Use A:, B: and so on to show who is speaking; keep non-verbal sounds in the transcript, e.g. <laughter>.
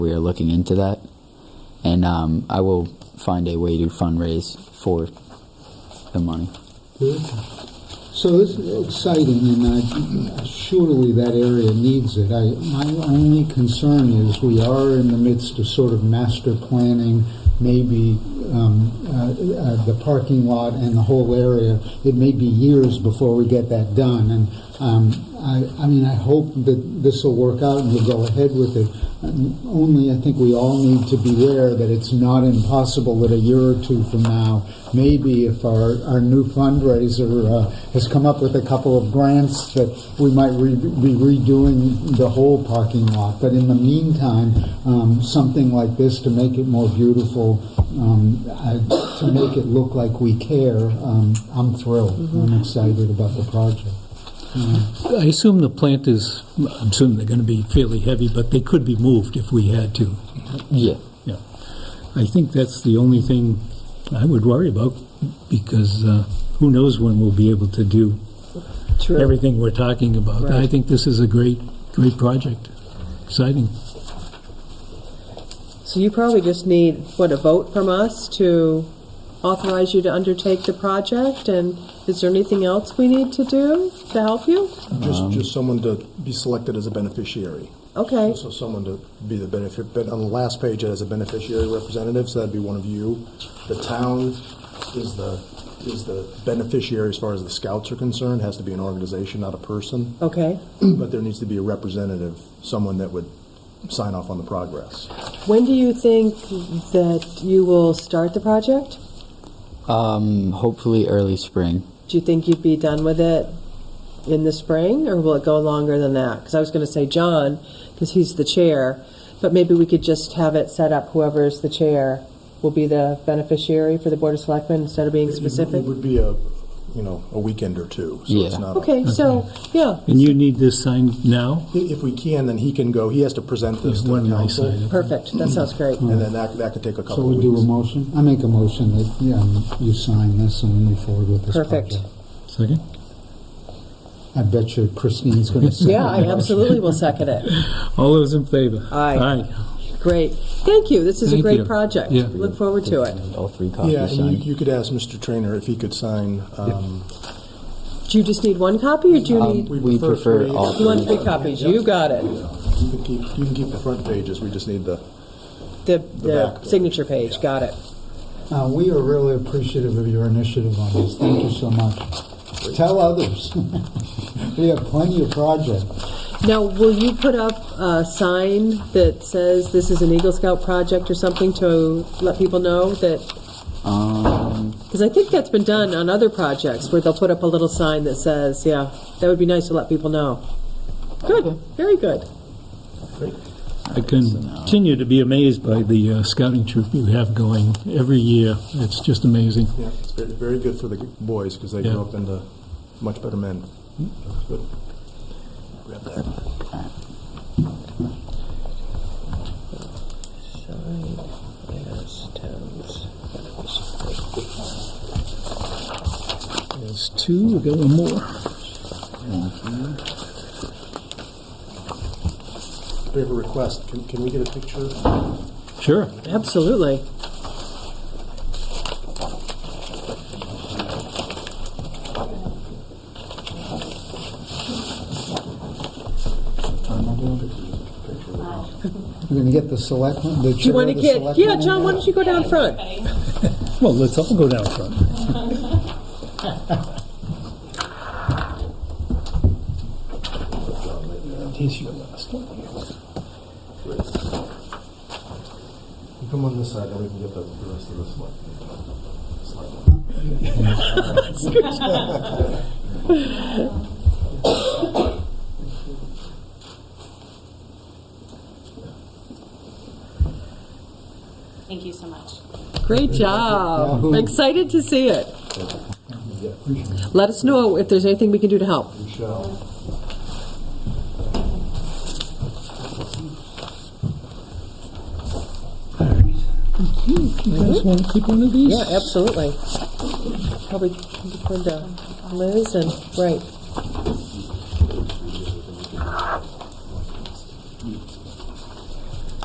A: We are looking into that, and um, I will find a way to fundraise for the money.
B: So this is exciting, and uh, surely that area needs it. I, my only concern is we are in the midst of sort of master planning, maybe um, uh, uh, the parking lot and the whole area. It may be years before we get that done, and um, I, I mean, I hope that this will work out and we'll go ahead with it. Um, Only, I think we all need to beware that it's not impossible that a year or two from now, maybe if our, our new fundraiser uh, has come up with a couple of grants, that we might re- be redoing the whole parking lot. But in the meantime, um, something like this to make it more beautiful, um, I- to make it look like we care, um, I'm thrilled. I'm excited about the project.
C: I assume the plant is, I'm assuming they're going to be fairly heavy, but they could be moved if we had to.
A: Yeah.
C: Yeah. I think that's the only thing I would worry about, because uh, who knows when we'll be able to do
D: True.
C: everything we're talking about. I
D: Right.
C: think this is a great, great project. Exciting.
D: So you probably just need, what, a vote from us to authorize you to undertake the project? And is there anything else we need to do to help you?
E: Just, just someone to be selected as a beneficiary.
D: Okay,
E: So someone to be the benefit, but on the last page, it has a beneficiary representative, so that'd be one of you. The town is the, is the beneficiary as far as the scouts are concerned, has to be an organization, not a person.
D: okay.
E: But there needs to be a representative, someone that would sign off on the progress.
D: When do you think that you will start the project?
A: Um, hopefully early spring.
D: Do you think you'd be done with it in the spring, or will it go longer than that? Because I was going to say John, because he's the chair, but maybe we could just have it set up, whoever's the chair will be the beneficiary for the Board of Selectmen instead of being specific?
E: It would be a, you know, a weekend or two, so
A: Yeah.
E: it's not. a-
D: Okay, so, yeah,
C: And you need this signed now?
E: i- If we can, then he can go, he has to present this
C: There's
E: to
C: one I
E: council,
C: signed.
D: perfect, that sounds great.
E: and then that, that could take a
B: So
E: couple of
B: we do
E: weeks.
B: a motion? I make a motion that um, you sign this and we move forward with this project.
D: Perfect.
C: Second?
B: I bet you Christine's going
D: <laughs>
B: to say.
D: Yeah, I absolutely will second it.
C: All those in favor?
D: Aye.
C: Aye.
D: Great, thank you, this is a
C: Thank
D: great
C: you.
D: project.
C: Yeah.
D: Look forward to it.
A: All three
E: Yeah,
A: copies
E: and
A: signed.
E: you, you could ask Mr. Trainer if he could sign, um,
D: Do you just need one copy, or do you need,
E: we
A: We
E: prefer
A: prefer
E: three.
A: all
D: you want
A: three.
D: three copies? You got it.
E: you can keep, you can keep the front pages, we just need the,
D: The,
E: back
D: the
E: page.
D: signature page, got it.
B: Uh, we are really appreciative of your initiative on this. Thank you so much. Tell others. <laughs> we have plenty of projects.
D: Now, will you put up a sign that says this is an Eagle Scout project or something to let people know that? Because I think that's been done on other projects where they'll put up a little sign that says, yeah, that would be nice to let people know. Good, very good.
C: I continue to be amazed by the uh, scouting troop you have going every year. It's just amazing.
E: yeah, it's very, very good for the boys, because they grow
C: Yeah.
E: up into much better men. That's good. Grab that.
C: There's two, we got one more.
E: We have a request, can, can we get a picture? All
C: Sure.
D: Absolutely.
B: We're going to get the selectmen. The
D: Do you want to get, yeah, John, why don't you go down front?
C: Well, let's all go down front.
E: You come on this side, and we can get the the rest of this one.
F: Thank you so much.
D: Great job.
B: Yahoo.
D: Excited to see it. Let us know if there's anything we can do to help.
E: We shall.
C: You guys want to keep one of these?
D: Yeah, absolutely. Probably Linda, Liz, and, right.